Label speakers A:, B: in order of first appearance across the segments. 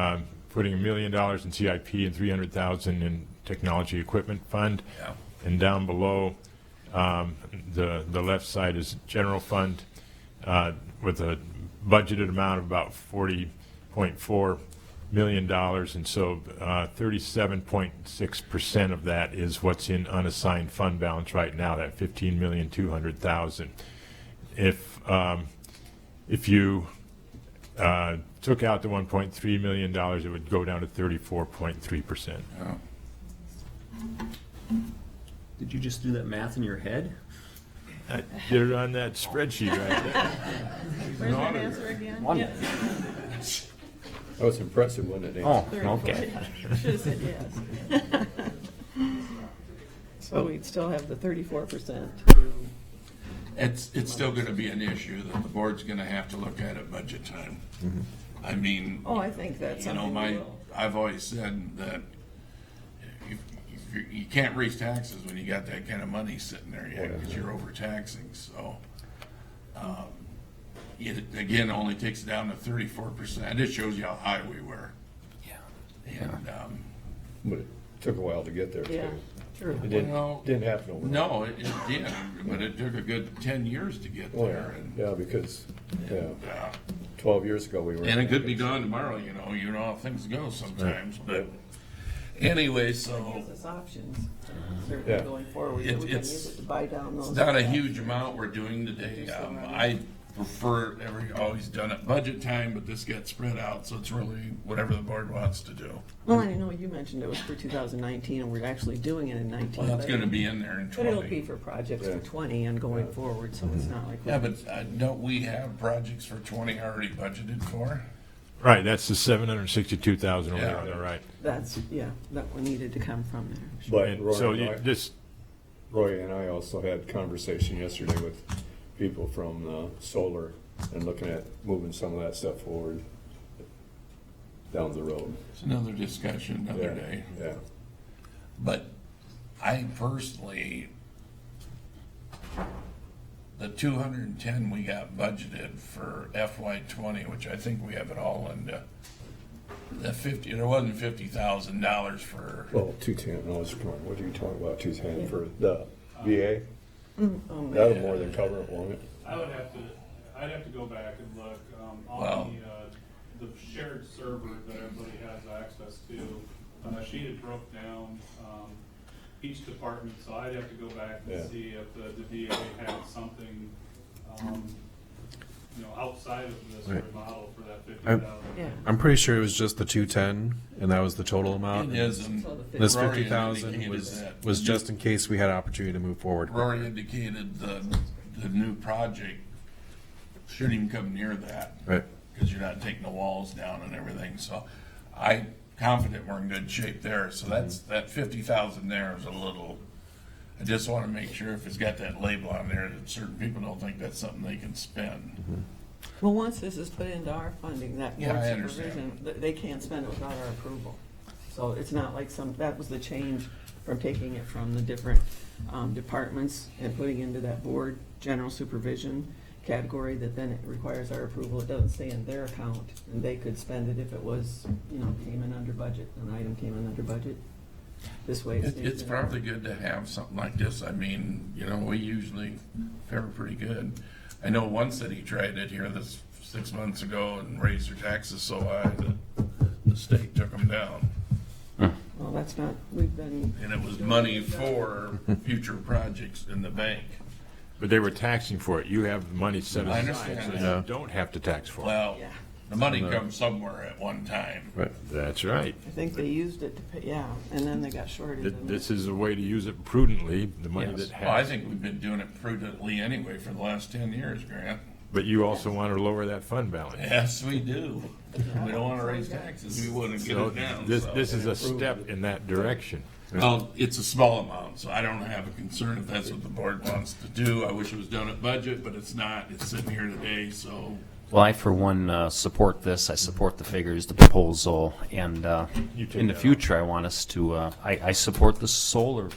A: um, putting a million dollars in CIP and 300,000 in technology equipment fund.
B: Yeah.
A: And down below, um, the, the left side is general fund uh, with a budgeted amount of about 40.4 million dollars. And so uh, 37.6% of that is what's in unassigned fund balance right now, that 15,200,000. If, um, if you uh, took out the 1.3 million dollars, it would go down to 34.3%.
C: Did you just do that math in your head?
A: I did it on that spreadsheet right there.
D: Where's that answer again?
B: One.
D: Yes,
E: That was impressive, wasn't it?
B: Oh,
D: thirty-four.
B: okay.
D: Should have said yes. So we'd still have the thirty-four percent.
F: It's, it's still gonna be an issue that the board's gonna have to look at at budget time.
E: Mm-hmm.
F: I mean,
D: Oh, I think that's
F: you know,
D: something we
F: my,
D: will.
F: I've always said that if, if you, you can't raise taxes when you got that kind of money sitting there yet, because you're overtaxing, so. um, It, again, only takes it down to thirty-four percent. It shows you how high we were. Yeah. And, um,
E: But it took a while to get there,
D: Yeah,
E: too.
D: true.
E: It
F: Well-
E: didn't, didn't happen overnight.
F: no, it, it did, but it took a good ten years to get
E: Oh,
F: there
E: yeah,
F: and,
E: yeah, because, yeah,
F: uh,
E: twelve years ago, we were.
F: And it could be gone tomorrow, you know, you know how things go sometimes, but anyway, so
D: Gives us options,
E: Yeah.
D: certainly going forward,
F: It-
D: that we can
F: it's-
D: use it to buy down those.
F: it's not a huge amount we're doing today. Um, I prefer every, always done at budget time, but this gets spread out, so it's really whatever the board wants to do.
D: Well, I know you mentioned it was for two thousand nineteen, and we're actually doing it in nineteen.
F: Well, that's
D: but-
F: gonna be in there in
D: But it'll be
F: twenty.
D: for projects for
E: Yeah.
D: twenty and going forward, so it's not like. we-
F: Yeah, but uh, don't we have projects for twenty already budgeted for?
A: Right, that's the 762,000 over there
F: Yeah.
A: on the right.
D: That's, yeah, that one needed to come from there.
E: But
A: And so
E: Roy
A: you
E: and I,
A: just,
E: Roy and I also had conversation yesterday with people from, uh, solar and looking at moving some of that stuff forward down the road.
F: It's another discussion, another
E: Yeah,
F: day.
E: Yeah,
F: But I personally, the two hundred and ten we got budgeted for FY twenty, which I think we have it all into the fifty, there wasn't fifty thousand dollars for,
E: well, two-ten, I was wrong, what are you talking about, two-ten for the VA?
D: Oh,
E: That'll more than cover it, won't it?
G: I would have to, I'd have to go back and look, um,
F: Wow.
G: on the, uh, the shared server that everybody has access to. Uh, she had broke down, um, each department, so I'd have to go back
E: Yeah.
G: and see if the, the DA had something, um, you know, outside of this
H: Right.
G: remodel for that fifty thousand.
D: Yeah.
H: I'm pretty sure it was just the 210, and that was the total amount.
F: it is, and
D: So the
H: This
F: Rory
H: 50,000
F: indicated
H: was,
F: that.
H: was just in case we had opportunity to move forward.
F: Rory indicated the, the new project shouldn't even come near that.
H: Right.
F: because you're not taking the walls down and everything, so I confident we're in good shape there, so that's, that fifty thousand there is a little, I just wanna make sure if it's got that label on there, that certain people don't think that's something they can spend.
D: Well, once this is put into our funding, that
F: Yeah,
D: board
F: I understand.
D: supervision, th- they can't spend it without our approval. So it's not like some, that was the change from taking it from the different um, departments and putting into that board general supervision category that then it requires our approval. It doesn't stay in their account, and they could spend it if it was, you know, came in under budget, an item came in under budget. This way it
F: It,
D: stays.
F: it's
D: in our-
F: probably good to have something like this, I mean, you know, we usually fare pretty good. I know one city tried it here this, six months ago and raised their taxes so high that the state took them down.
D: Well, that's not, we've been,
F: And it was money for future projects in the bank.
A: but they were taxing for it. You have the money set
F: I
A: aside, so
F: understand.
A: you don't have to tax for it.
F: Well,
D: Yeah.
F: the money comes somewhere at one time.
H: Right.
A: That's right.
D: I think they used it to pay, yeah, and then they got shorted.
A: Th-
D: and-
A: This is a way to use it prudently, the money that
F: Well, I
A: has.
F: think we've been doing it prudently anyway for the last ten years, Grant.
A: But you also want to lower that fund balance.
F: Yes, we do. We don't wanna raise taxes. We wouldn't get
A: So
F: it down.
A: This,
F: so.
A: this is a step in that direction.
F: Well, it's a small amount, so I don't have a concern if that's what the board wants to do. I wish it was done at budget, but it's not. It's sitting here today, so
I: Well, I, for one, uh, support this. I support the figures, the proposal, and uh,
A: You take
I: in the
A: that off.
I: future, I want us to, uh, I, I support the solar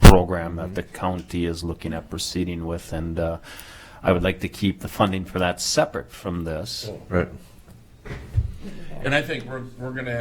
I: program that
A: Mm-hmm.
I: the county is looking at proceeding with, and uh,
A: Oh.
I: I would like to keep the funding for that separate from this.
H: Right.
F: And I think we're, we're gonna have